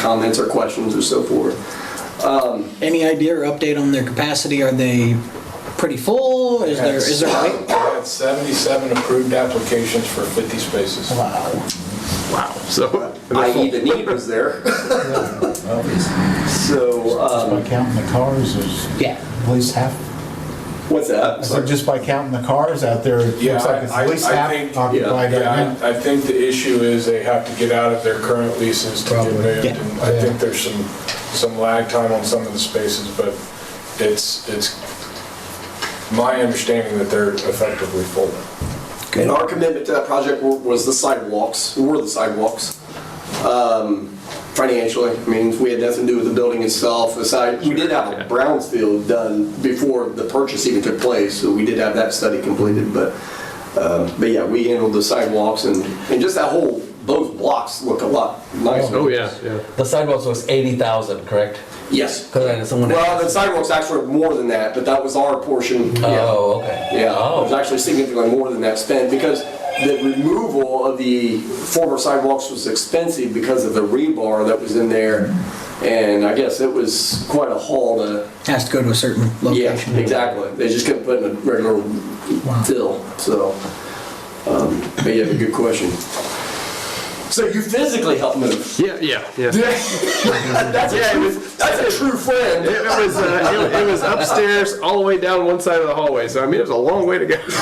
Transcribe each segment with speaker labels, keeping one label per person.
Speaker 1: comments or questions or so forth.
Speaker 2: Any idea or update on their capacity? Are they pretty full? Is there, is there,
Speaker 3: We
Speaker 2: wait-
Speaker 3: had 77 approved applications for 50 spaces.
Speaker 4: Wow. So,
Speaker 1: i.e. E the need was there. So,
Speaker 5: Just
Speaker 1: um,
Speaker 5: by counting the cars, there's
Speaker 2: yeah.
Speaker 5: at least half,
Speaker 1: what's that?
Speaker 5: I said just by counting the cars out there, it
Speaker 3: Yeah,
Speaker 5: looks like it's
Speaker 3: I- I-
Speaker 5: at least
Speaker 3: I
Speaker 5: half
Speaker 3: think-
Speaker 5: occupied right
Speaker 3: Yeah,
Speaker 5: now.
Speaker 3: I I think the issue is they have to get out of their current leases to get
Speaker 5: Probably.
Speaker 3: moved.
Speaker 2: Yeah.
Speaker 3: and I
Speaker 5: Yeah.
Speaker 3: think there's some, some lag time on some of the spaces, but it's, it's my understanding that they're effectively full.
Speaker 1: And our commitment to that project were- was the sidewalks, were the sidewalks. Um, Financially, I mean, we had nothing to do with the building itself, aside, we did have a Brownsfield done before the purchase even took place, so we did have that study completed, but, um, but yeah, we handled the sidewalks and, and just that whole, those blocks look a lot nicer.
Speaker 4: oh yeah, yeah.
Speaker 6: The sidewalks was eighty thousand, correct?
Speaker 1: Yes.
Speaker 6: Because I know someone.
Speaker 1: Well, the sidewalks actually were more than that, but that was our portion. Yeah.
Speaker 6: oh, okay.
Speaker 1: Yeah, it was
Speaker 6: Oh,
Speaker 1: actually significantly more than that spend because the removal of the former sidewalks was expensive because of the rebar that was in there. And I guess it was quite a haul to,
Speaker 2: Has to go to a certain
Speaker 1: yeah,
Speaker 2: location.
Speaker 1: exactly. They just couldn't put in a regular fill, so. um, But yeah, good question. So you physically helped move?
Speaker 4: Yeah, yeah, yeah.
Speaker 1: That's a true, that's a true friend.
Speaker 4: It was, uh, it, it was upstairs, all the way down one side of the hallway. So I mean, it was a long way to go.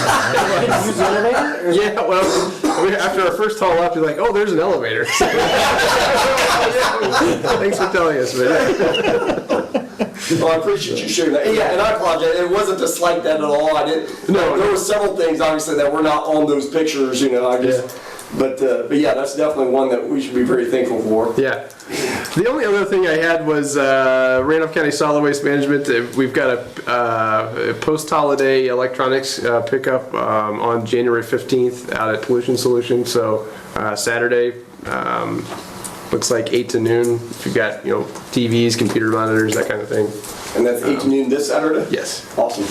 Speaker 4: yeah, well, I mean, after our first haul up, you're like, oh, there's an elevator. Thanks for telling us, but yeah.
Speaker 1: Well, I appreciate you sharing that. Yeah, and I apologize. It wasn't to slight that at all. I didn't.
Speaker 4: No.
Speaker 1: there were several things obviously that were not on those pictures. You know, I just. But uh, but yeah, that's definitely one that we should be very thankful for.
Speaker 4: yeah. The only other thing I had was uh, Randolph County Solid Waste Management. uh, We've got a uh, post-holiday electronics uh, pickup um, on January 15th out at Pollution Solution. So uh, Saturday, um, looks like 8 to noon. If you've got, you know, TVs, computer monitors, that kind of thing.
Speaker 1: And that's 8 to noon this Saturday.
Speaker 4: Yes.
Speaker 1: Awesome.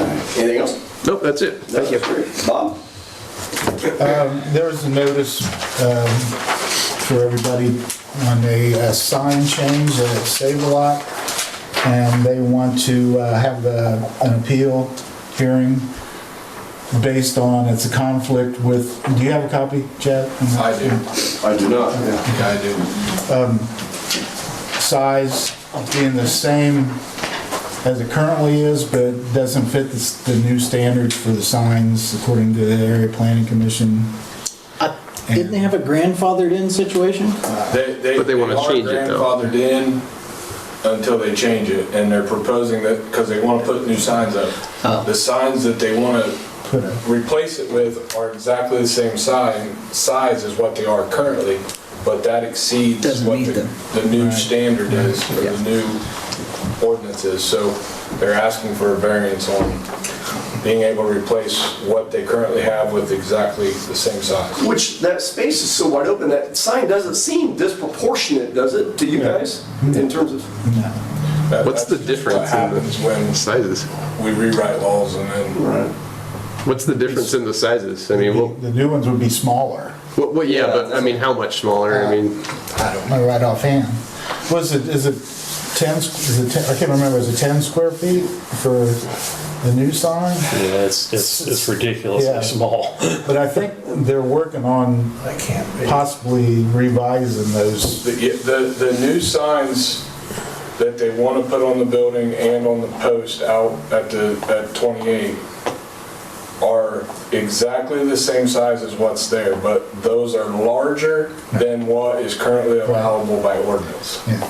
Speaker 1: All right. Anything else?
Speaker 4: Nope, that's it. Thank you.
Speaker 1: That's great. Bob.
Speaker 5: Um, There was a notice um, for everybody on a uh, sign change at Save-A-Lot, and they want to uh, have uh, an appeal hearing based on, it's a conflict with, do you have a copy, Chad?
Speaker 3: I do.
Speaker 1: I do not. Yeah.
Speaker 3: Yeah, I do.
Speaker 5: size being the same as it currently is, but doesn't fit the s- the new standards for the signs according to the area planning commission.
Speaker 2: Uh, Didn't they have a grandfathered in situation?
Speaker 4: But they wanna change it, though.
Speaker 3: are grandfathered in until they change it, and they're proposing that, because they want to put new signs
Speaker 4: Oh.
Speaker 3: up. The signs that they want
Speaker 5: Put
Speaker 3: to
Speaker 5: up.
Speaker 3: replace it with are exactly the same sign, size as what they are currently, but that exceeds
Speaker 2: Doesn't
Speaker 3: what
Speaker 2: meet
Speaker 3: the,
Speaker 2: them.
Speaker 3: the new standard is, or the new ordinance is. So they're asking for a variance on being able to replace what they currently have with exactly the same size.
Speaker 1: Which that space is so wide open that sign doesn't seem disproportionate, does it, to you guys in terms of?
Speaker 5: No.
Speaker 3: That-
Speaker 4: What's the
Speaker 3: that's
Speaker 4: difference in
Speaker 3: What
Speaker 4: the-
Speaker 3: happens when
Speaker 4: Sizes.
Speaker 3: we rewrite laws and then,
Speaker 4: What's the difference in the sizes? I mean, well,
Speaker 5: The new ones would be smaller.
Speaker 4: well, well yeah,
Speaker 1: Yeah,
Speaker 4: but I
Speaker 1: that's-
Speaker 4: mean, how much smaller? I mean,
Speaker 5: I don't know right offhand. Was it, is it 10, is it 10, I can't remember, is it 10 square feet for the new sign?
Speaker 7: Yeah, it's, it's, it's ridiculously
Speaker 5: Yeah.
Speaker 7: small.
Speaker 5: But I think they're working on possibly revising those.
Speaker 3: the, the, the new signs that they want to put on the building and on the post out at the, at 28 are exactly the same size as what's there, but those are larger than what is currently allowable by ordinance.
Speaker 5: Yeah.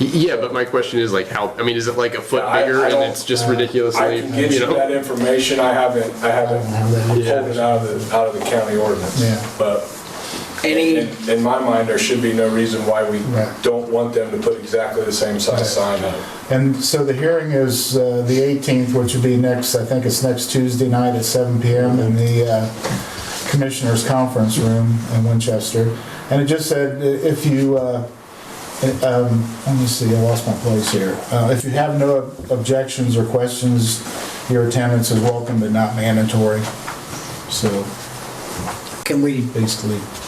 Speaker 4: y- yeah, but my question is like, how? I mean, is it like a foot
Speaker 3: Yeah, I-
Speaker 4: bigger
Speaker 3: I
Speaker 4: and
Speaker 3: don't-
Speaker 4: it's just
Speaker 3: I
Speaker 4: ridiculously,
Speaker 3: can get
Speaker 4: you
Speaker 3: you
Speaker 4: know?
Speaker 3: that information, I haven't, I haven't pulled
Speaker 5: Yeah.
Speaker 3: it out of the, out of the county ordinance.
Speaker 5: Yeah.
Speaker 3: But
Speaker 2: Any,
Speaker 3: In in my mind, there should be no reason why we
Speaker 5: Right.
Speaker 3: don't want them to put exactly the same size sign up.
Speaker 5: And so the hearing is uh, the 18th, which would be next, I think it's next Tuesday night at 7 PM in the uh, Commissioners Conference Room in Winchester. And it just said, i- if you, uh, it, um, let me see, I lost my place here. Uh, If you have no objections or questions, your attendance is welcome but not mandatory. So
Speaker 2: can we
Speaker 5: basically,